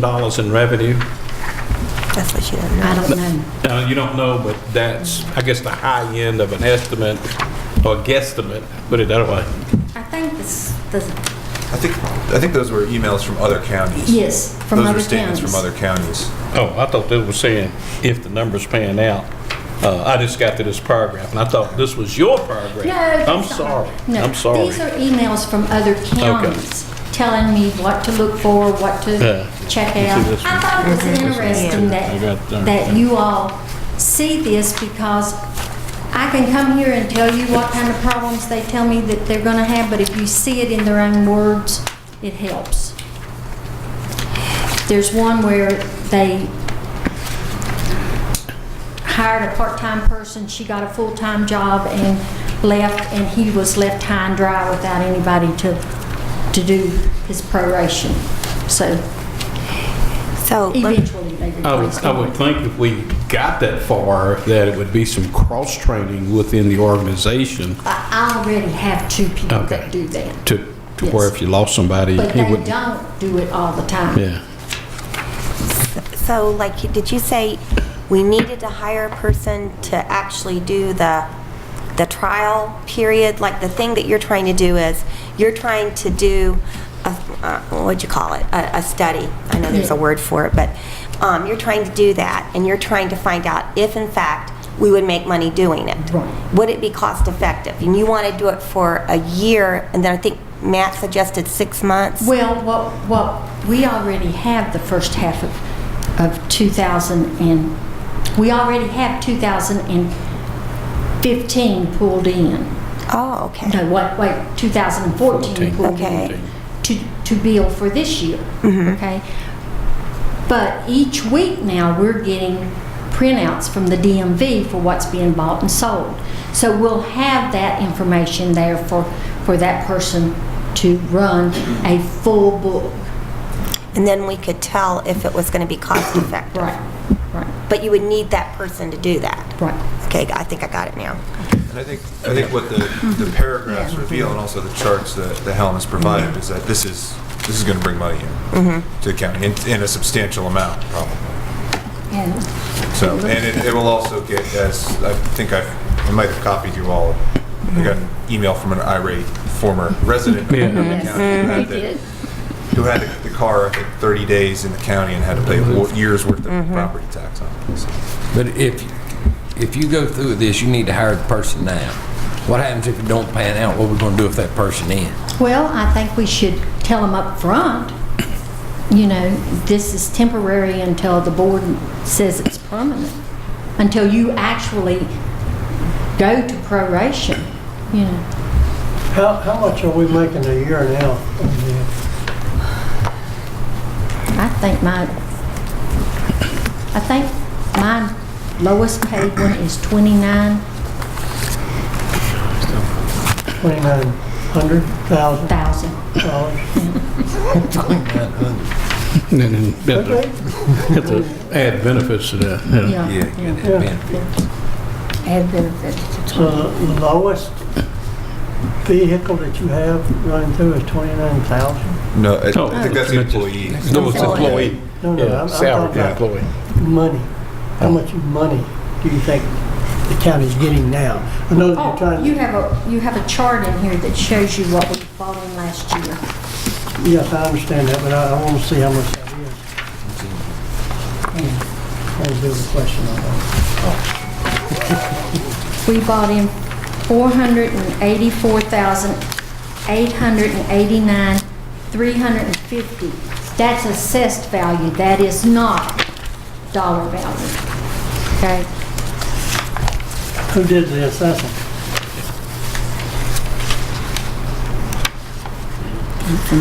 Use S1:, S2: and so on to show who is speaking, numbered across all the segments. S1: dollars in revenue.
S2: That's what she doesn't know.
S3: I don't know.
S1: Now, you don't know, but that's, I guess, the high end of an estimate or guesstimate, put it that way.
S3: I think it's the,
S4: I think, I think those were emails from other counties.
S3: yes, from other
S4: Those were
S3: towns.
S4: statements from other counties.
S1: Oh, I thought they were saying if the number's pan out. Uh, I just got to this paragraph and I thought this was your paragraph.
S3: No.
S1: I'm
S3: that's not-
S1: sorry.
S3: No,
S1: I'm sorry.
S3: These are emails from other counties telling me what to look for, what
S1: Yeah.
S3: to check
S1: You see
S3: out.
S1: this
S3: I thought it was interesting
S1: I got
S3: that,
S1: that.
S3: that you all see this because I can come here and tell you what kind of problems they tell me that they're gonna have, but if you see it in their own words, it helps. There's one where they hired a part-time person, she got a full-time job and left, and he was left high and dry without anybody to, to do his proration. So
S2: So, let-
S3: eventually they
S1: I would,
S3: replaced
S1: I would
S3: him.
S1: think if we got that far, that it would be some cross-training within the organization
S3: I I already have two people
S1: Okay.
S3: that do that,
S1: to, to where
S3: Yes.
S1: if you lost somebody,
S3: but
S1: he
S3: they
S1: wouldn't.
S3: don't do it all the time.
S1: Yeah.
S2: so like, did you say we needed to hire a person to actually do the, the trial period? Like, the thing that you're trying to do is, you're trying to do, a- uh, what'd you call it? A, a study. I know there's a
S3: Yeah.
S2: word for it, but um, you're trying to do that, and you're trying to find out if in fact we would make money doing it.
S3: Right.
S2: Would it be cost effective? And you want to do it for a year, and then I think Matt suggested six months?
S3: Well, what, what, we already have the first half of, of 2000 and, we already have 2015 pulled in.
S2: Oh, okay.
S3: No, what, wait, 2014 pool
S2: Okay.
S3: to, to bill for this year, okay? But each week now, we're getting printouts from the DMV for what's being bought and sold. So we'll have that information there for, for that person to run a full book.
S2: And then we could tell if it was going to be cost effective.
S3: Right, right,
S2: But you would need that person to do that.
S3: right.
S2: Okay, I think I got it now.
S4: And I think, I think what the, the paragraphs reveal and also the charts that the Helen has provided is that this is, this is going to bring money in to the county in, in a substantial amount, probably.
S3: And
S4: So, and it, it will also get, as, I think I, I might have copied you all. I got an email from an irate former resident of the
S1: Yeah.
S4: county
S3: Mm-hmm.
S4: who had the- who had the car, I think, 30 days in the county and had to pay a year's worth of property tax on it. So-
S5: But if, if you go through this, you need to hire the person now. What happens if it don't pan out? What we gonna do if that person in?
S3: Well, I think we should tell them up front, you know, this is temporary until the board says it's permanent, until you actually go to proration, you know.
S6: How, how much are we making a year now? on
S3: I think my, I think my lowest paid one is 29,000.
S6: the $2,900,000?
S1: And then you have to- have to add benefits to that, yeah.
S3: Yeah. Add benefits.
S6: So the lowest vehicle that you have running through is 29,000?
S4: No, I
S1: Oh.
S4: I think that's the employee.
S1: No, it's
S2: Employee.
S1: employee.
S6: No, no,
S1: Yeah,
S6: I'm- I'm
S1: salary
S6: talking about
S1: employee.
S6: money. How much money do you think the county's getting now? I know that you're
S3: Oh, you
S6: trying,
S3: have a, you have a chart in here that shows you what we bought in last year.
S6: yes, I understand that, but I, I want to see how much that is. That was the other question I had.
S3: We bought in 484,889, 350. That's assessed value, that is not dollar value. Okay?
S6: Who did the assessing?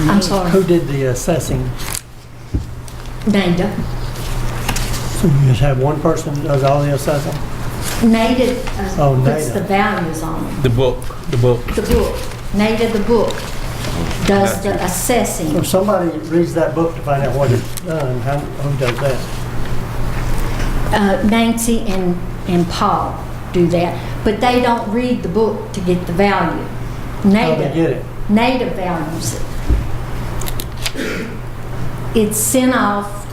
S3: I'm sorry,
S6: Who did the assessing?
S3: NADA.
S6: So you just have one person that does all the assessing?
S3: NADA
S6: Oh,
S3: uh, puts
S6: NADA.
S3: the values on it,
S1: The book, the book.
S3: the book. NADA, the book, does the assessing.
S6: If somebody reads that book to find out what it's done, how, who does that?
S3: Uh, Nancy and, and Paul do that, but they don't read the book to get the value.
S6: How
S3: NADA.
S6: they get it?
S3: native values. it's sent off